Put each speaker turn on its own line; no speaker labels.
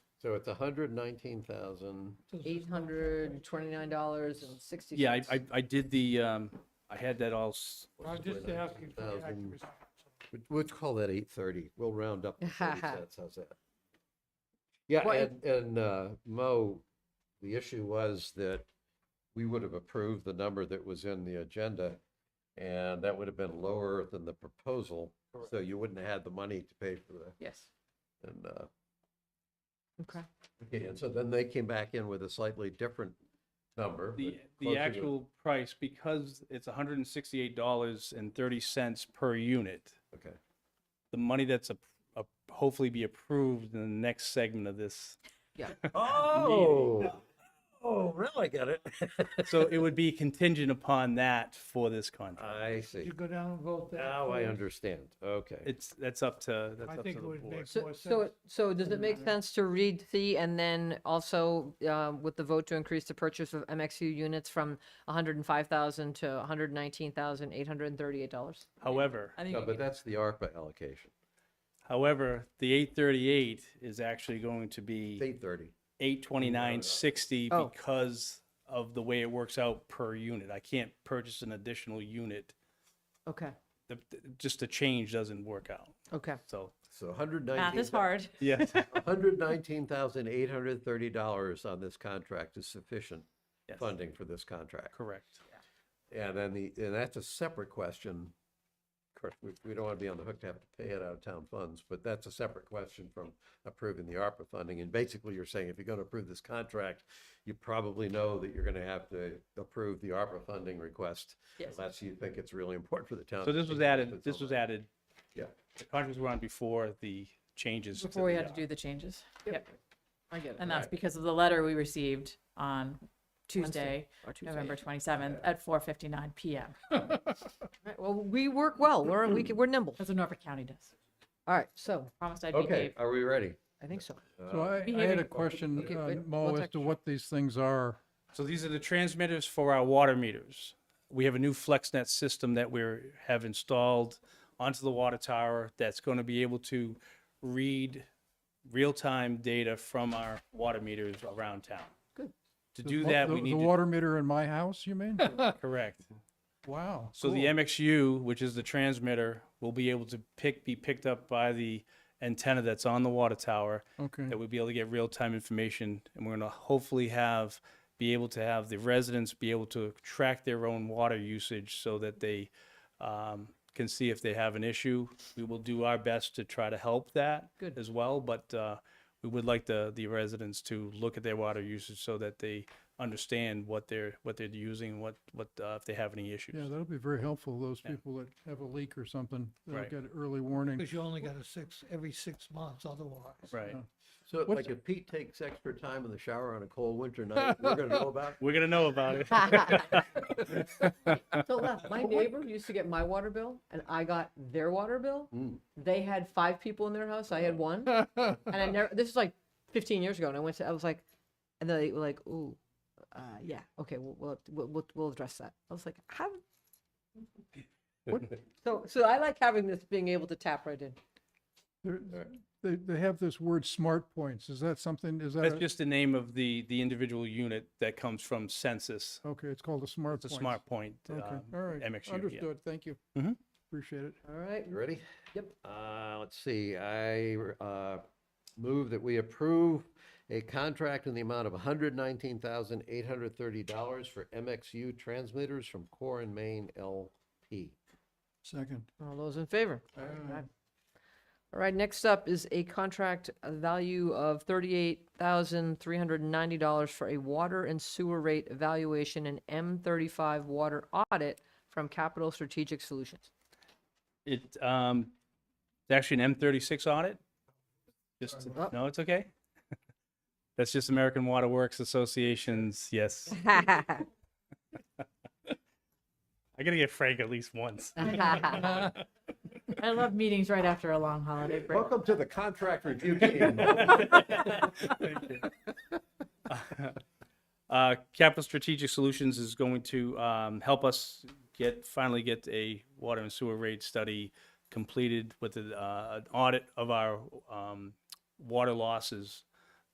So it's hundred and nineteen thousand.
Eight hundred twenty-nine dollars and sixty.
Yeah, I, I, I did the, um, I had that all, s-
I was just asking for the
19,000.
accuracy.
We'll call that eight thirty. We'll round up to thirty cents. How's that? Yeah,
Well,
and, and, uh, Mo, the issue was that we would have approved the number that was in the agenda, and that would have been lower than the proposal, so you wouldn't have had the money to pay for that.
Yes,
And, uh,
okay.
okay, and so then they came back in with a slightly different number.
the,
but
the
closer to-
actual price, because it's hundred and sixty-eight dollars and thirty cents per unit.
Okay,
The money that's a, a, hopefully be approved in the next segment of this.
Oh, oh, really? I get it.
So it would be contingent upon that for this contract.
I
Did you
see.
go down and vote that?
Now I
first?
understand. Okay.
It's, that's up to, that's
I
up to
think
the
it would
board.
make
So,
more
so,
sense.
it- so does it make sense to read the and then also uh, with the vote to increase the purchase of MXU units from hundred and five thousand to hundred and nineteen thousand eight hundred and thirty-eight dollars?
However,
I think
No,
you
but
can-
that's the ARPA allocation.
however, the eight thirty-eight is actually going to be.
It's eight thirty.
eight twenty nine sixty
Oh.
because of the way it works out per unit. I can't purchase an additional unit.
Okay,
The, the- just the change doesn't work out.
okay.
So
So 119.
math is hard.
yeah,
Hundred nineteen thousand eight hundred thirty dollars on this contract is sufficient
Yes.
funding for this contract.
correct.
And then the, and that's a separate question. Of course, we, we don't want to be on the hook to have to pay it out of town funds, but that's a separate question from approving the ARPA funding. And basically, you're saying if you're going to approve this contract, you probably know that you're going to have to approve the ARPA funding request.
Yes.
Unless you think it's really important for the town.
So
to
this was
see
added.
benefits
This
on
was
that.
added.
Yeah.
The contracts were on before the changes.
Before we
the,
had to
uh,
do the changes. Yep.
I get
And that's
Right.
because of the letter we received on Tuesday, November 27th at 4:59 PM.
Well, we work well. We're, we can, we're nimble.
That's what Norfolk County does.
All right, so
Promised I'd
Okay,
behave.
are we ready? Uh,
I think so.
So I, I had
behaving-
a question,
Okay,
uh,
wait,
Mo,
one
as
sec.
to what these things are.
uh, So these are the transmitters for our water meters. We have a new FlexNet system that we have installed onto the water tower that's going to be able to read real-time data from our water meters around town. Good. To do
The-
that, we
the-
need
The
to,
water meter in my house, you mean?
correct.
Wow.
So the
cool.
MXU, which is the transmitter, will be able to pick, be picked up by the antenna that's on the water tower
Okay,
that we'll be able to get real-time information and we're going to hopefully have be able to have the residents be able to track their own water usage so that they um, can see if they have an issue we will do our best to try to help that
Good.
as well but uh, we would like the the residents to look at their water usage so that they understand what they're what they're using what what uh, if they have any issues
yeah, that'll be very helpful, those
Yeah.
people that have a leak or something, they'll
Right.
get early warning.
Because you only got a six, every six months otherwise.
right
Yeah.
So
What's-
like if Pete takes extra time in the shower on a cold winter night, we're gonna know about it?
we're going to know about it
So left, my neighbor used to get my water bill and I got their water bill.
Mm.
They had five people in their house. I had one. And I never, this is like 15 years ago. And I went to, I was like, and they were like, ooh, uh, yeah, okay, we'll, we'll, we'll, we'll- we'll address that. I was like, how? what?" So, so I like having this, being able to tap right in.
They're-
Right.
They, they have this word smart points, is that something, is that,
that's
a-
just the name of the the individual unit that comes from census
okay, it's called a smart
It's a
point?
smart point.
Okay,
um,
all right,
MXU, yeah.
understood, thank you.
Mhm.
Appreciate it.
All right.
You ready?
Yep.
Uh, let's see, I, uh, move that we approve a contract in the amount of hundred nineteen thousand eight hundred thirty dollars for MXU transmitters from Core and Main LP.
Second.
All those in favor? Aye. All right, next up is a contract value of thirty-eight thousand three hundred and ninety dollars for a water and sewer rate evaluation and M thirty-five water audit from Capital Strategic Solutions.
It, um, it's actually an M36 audit. Just,
Oh.
no, it's okay. That's just American Water Works Association's, yes. I gotta get Frank at least once.
I love meetings right after a long holiday break.
Welcome to the contract review team.
Uh, Capital Strategic Solutions is going to, um, help us get, finally get a water and sewer rate study completed with, a, uh, an audit of our, um, water losses